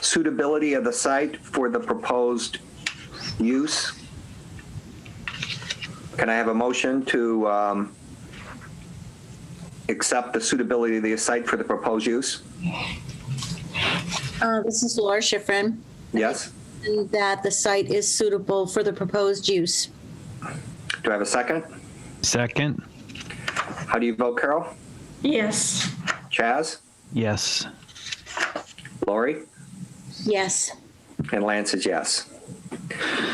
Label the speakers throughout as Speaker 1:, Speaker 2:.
Speaker 1: suitability of the site for the proposed use. Can I have a motion to um, accept the suitability of the site for the proposed use?
Speaker 2: Uh, This is Laura Schifrin,
Speaker 1: Yes?
Speaker 2: and that the site is suitable for the proposed use.
Speaker 1: Do I have a second?
Speaker 3: Second.
Speaker 1: How do you vote, Carol?
Speaker 4: Yes.
Speaker 1: Chaz?
Speaker 3: Yes.
Speaker 1: Lori?
Speaker 2: Yes.
Speaker 1: And Lance is yes.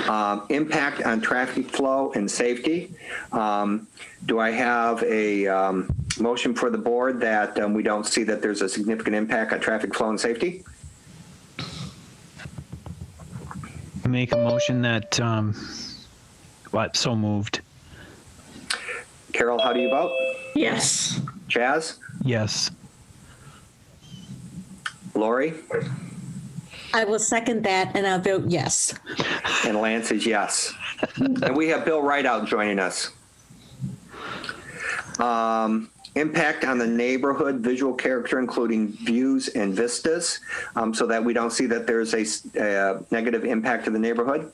Speaker 1: Um, Impact on traffic flow and safety. Um, Do I have a um, motion for the board that um, we don't see that there's a significant impact on traffic flow and safety?
Speaker 3: Make a motion that, um, what, so moved.
Speaker 1: Carol, how do you vote?
Speaker 4: Yes.
Speaker 1: Chaz?
Speaker 3: Yes.
Speaker 1: Lori?
Speaker 2: I will second that and I'll vote yes.
Speaker 1: And Lance is yes. And we have Bill Rideout joining us. Um, Impact on the neighborhood, visual character, including views and vistas, um, so that we don't see that there's a s- a negative impact to the neighborhood.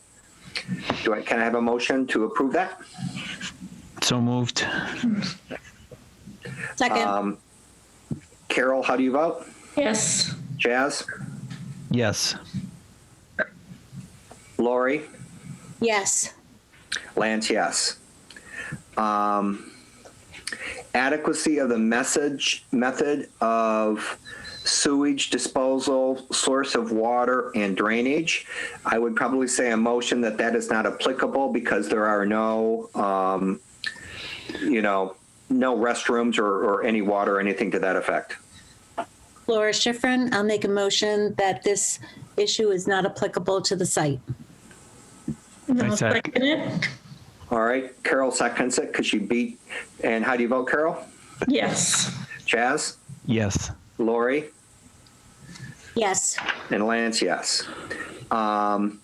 Speaker 1: Do I, can I have a motion to approve that?
Speaker 3: So moved.
Speaker 2: Second,
Speaker 1: Um, Carol, how do you vote?
Speaker 4: Yes.
Speaker 1: Jazz?
Speaker 3: Yes.
Speaker 1: Lori?
Speaker 2: yes.
Speaker 1: Lance, yes. Um, adequacy of the message method of sewage disposal, source of water, and drainage. I would probably say a motion that that is not applicable because there are no, um, you know, no restrooms or, or any water or anything to that effect.
Speaker 2: Laura Schifrin, I'll make a motion that this issue is not applicable to the site.
Speaker 4: And
Speaker 3: I
Speaker 4: I'll
Speaker 3: sec-
Speaker 4: second it.
Speaker 1: All right, Carol seconds it because she beat. And how do you vote, Carol?
Speaker 4: Yes.
Speaker 1: Chaz?
Speaker 3: Yes.
Speaker 1: Lori?
Speaker 2: Yes.
Speaker 1: And Lance, yes. Um,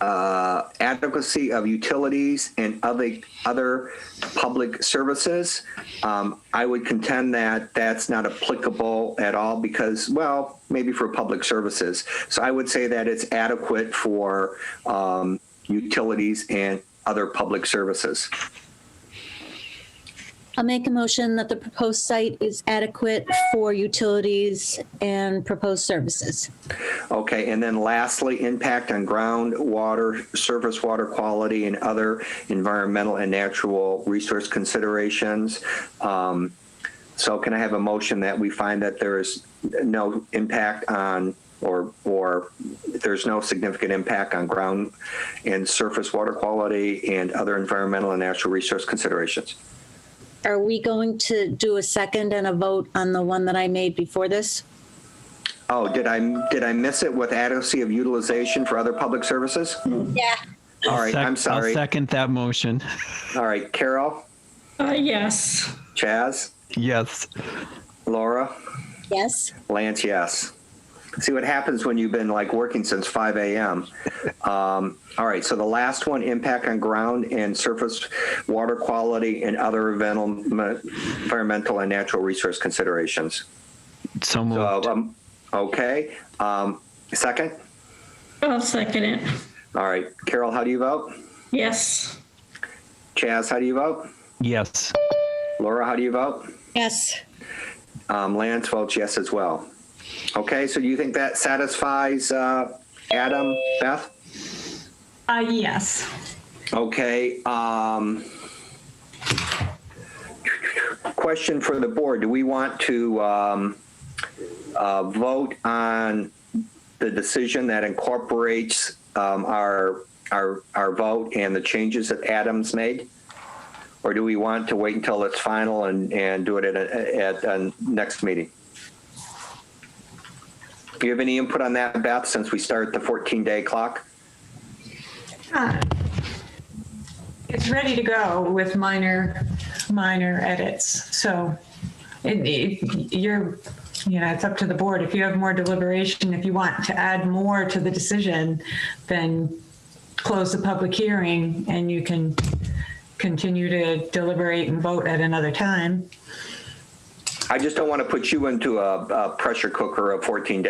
Speaker 1: uh, adequacy of utilities and other, other public services. Um, I would contend that that's not applicable at all because, well, maybe for public services. So I would say that it's adequate for, um, utilities and other public services.
Speaker 2: I'll make a motion that the proposed site is adequate for utilities and proposed services.
Speaker 1: Okay, and then lastly, impact on groundwater, surface water quality, and other environmental and natural resource considerations. Um, So can I have a motion that we find that there is no impact on, or, or there's no significant impact on ground and surface water quality and other environmental and natural resource considerations?
Speaker 2: Are we going to do a second and a vote on the one that I made before this?
Speaker 1: Oh, did I, did I miss it with adequacy of utilization for other public services?
Speaker 2: Yeah.
Speaker 1: All right,
Speaker 3: Sec-
Speaker 1: I'm sorry.
Speaker 3: I'll second that motion.
Speaker 1: All right, Carol?
Speaker 4: Uh, yes.
Speaker 1: Chaz,
Speaker 3: Yes.
Speaker 1: Laura,
Speaker 2: Yes.
Speaker 1: Lance, yes. See what happens when you've been like working since 5 a.m. Um, all right, so the last one impact on ground and surface water quality and other environmental environmental and natural resource considerations.
Speaker 3: So
Speaker 1: So,
Speaker 3: moved.
Speaker 1: um, okay. Um, second?
Speaker 4: I'll second it.
Speaker 1: All right, Carol, how do you vote?
Speaker 4: Yes.
Speaker 1: Chaz, how do you vote?
Speaker 3: Yes.
Speaker 1: Laura, how do you vote?
Speaker 2: Yes.
Speaker 1: Um, Lance votes yes as well. Okay, so do you think that satisfies uh, Adam, Beth?
Speaker 5: Uh, yes.
Speaker 1: Okay, um, question for the board. Do we want to, um, uh, vote on the decision that incorporates, um, our, our, our vote and the changes that Adams made? Or do we want to wait until it's final and, and do it at, a- at, a next meeting? Do you have any input on that, Beth, since we start the 14-day clock?
Speaker 5: Uh, It's ready to go with minor, minor edits. So it, it, you're, you know, it's up to the board. If you have more deliberation, if you want to add more to the decision, then close the public hearing and you can continue to deliberate and vote at another time.
Speaker 1: I just don't want to put you into a, a pressure cooker of 14 days.